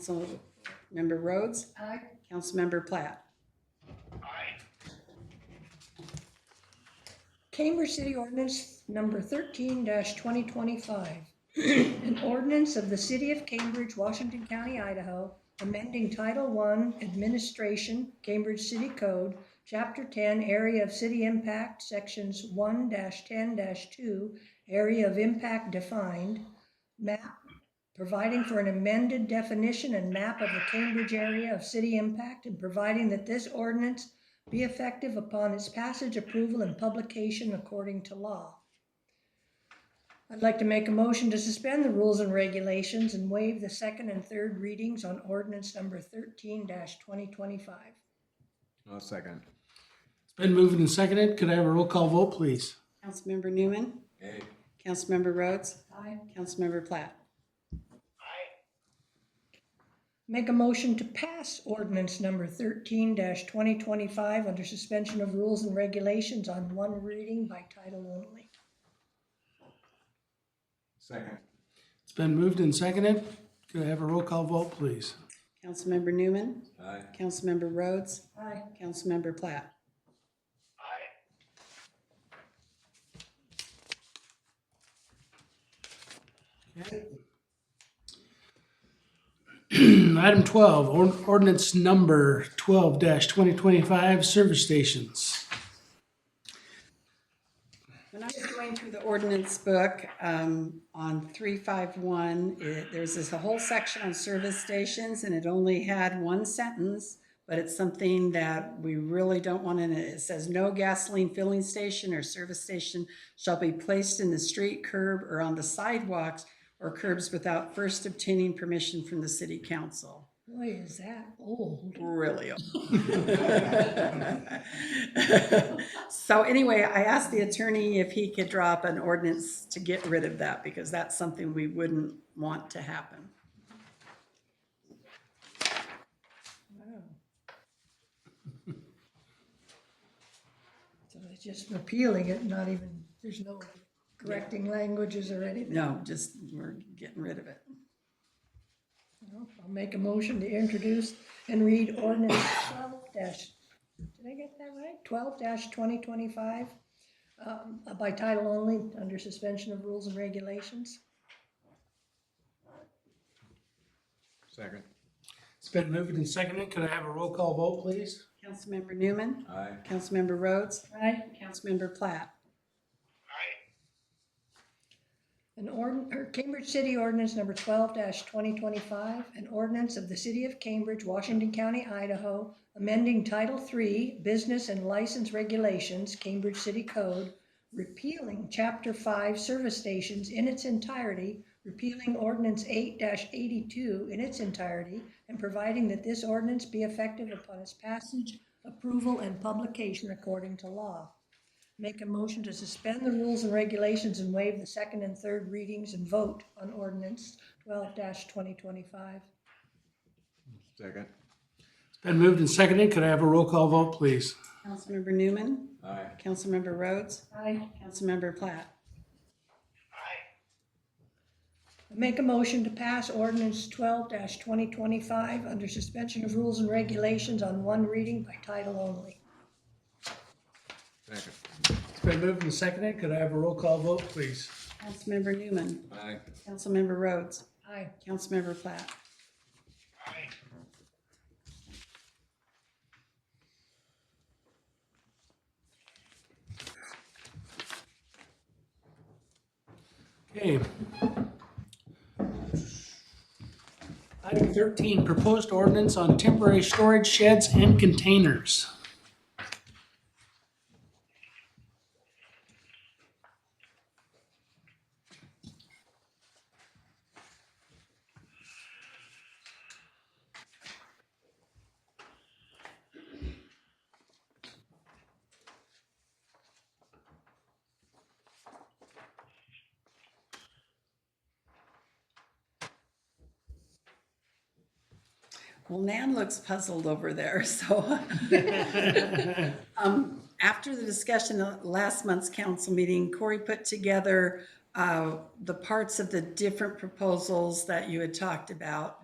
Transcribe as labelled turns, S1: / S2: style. S1: Councilmember Rhodes? Aye. Councilmember Platt?
S2: Aye.
S3: Cambridge City Ordinance Number thirteen twenty twenty-five. An ordinance of the City of Cambridge, Washington County, Idaho, amending Title I Administration, Cambridge City Code, Chapter ten, Area of City Impact, Sections one ten two, Area of Impact Defined, Map, providing for an amended definition and map of the Cambridge area of city impact, and providing that this ordinance be effective upon its passage, approval, and publication according to law. I'd like to make a motion to suspend the rules and regulations and waive the second and third readings on ordinance number thirteen twenty twenty-five.
S4: I'll second.
S5: It's been moved and seconded. Could I have a roll call vote, please?
S1: Councilmember Newman?
S4: Aye.
S1: Councilmember Rhodes?
S3: Aye.
S1: Councilmember Platt?
S3: Make a motion to pass ordinance number thirteen twenty twenty-five under suspension of rules and regulations on one reading by title only.
S4: Second.
S5: It's been moved and seconded. Could I have a roll call vote, please?
S1: Councilmember Newman?
S4: Aye.
S1: Councilmember Rhodes?
S3: Aye.
S1: Councilmember Platt?
S2: Aye.
S5: Item twelve, or- ordinance number twelve twenty twenty-five, service stations.
S1: When I was going through the ordinance book, um, on three five one, it, there's this whole section on service stations and it only had one sentence. But it's something that we really don't want in it. It says, no gasoline filling station or service station shall be placed in the street curb or on the sidewalks or curbs without first obtaining permission from the city council.
S3: Boy, is that old.
S1: Really. So anyway, I asked the attorney if he could draw up an ordinance to get rid of that, because that's something we wouldn't want to happen.
S3: Wow. So it's just repealing it, not even, there's no correcting languages or anything.
S1: No, just, we're getting rid of it.
S3: No, I'll make a motion to introduce and read ordinance twelve dash, did I get that right? Twelve twenty twenty-five, um, by title only, under suspension of rules and regulations.
S4: Second.
S5: It's been moved and seconded. Could I have a roll call vote, please?
S1: Councilmember Newman,
S4: Aye.
S1: Councilmember Rhodes,
S3: Aye.
S1: Councilmember Platt.
S3: An ord, or Cambridge City Ordinance Number twelve twenty twenty-five, an ordinance of the City of Cambridge, Washington County, Idaho, amending Title III Business and License Regulations, Cambridge City Code, repealing Chapter Five Service Stations in its entirety, repealing Ordinance eight eighty-two in its entirety, and providing that this ordinance be effective upon its passage, approval, and publication according to law. Make a motion to suspend the rules and regulations and waive the second and third readings and vote on ordinance twelve twenty twenty-five.
S4: Second.
S5: It's been moved and seconded. Could I have a roll call vote, please?
S1: Councilmember Newman,
S4: Aye.
S1: Councilmember Rhodes,
S3: Aye.
S1: Councilmember Platt.
S3: Make a motion to pass ordinance twelve twenty twenty-five under suspension of rules and regulations on one reading by title only.
S4: Second.
S5: It's been moved and seconded. Could I have a roll call vote, please?
S1: Councilmember Newman,
S4: Aye.
S1: Councilmember Rhodes,
S3: Aye.
S1: Councilmember Platt.
S5: Okay. Item thirteen, proposed ordinance on temporary storage sheds and containers.
S1: Well, Nan looks puzzled over there, so. Um, After the discussion at last month's council meeting, Corey put together uh, the parts of the different proposals that you had talked about.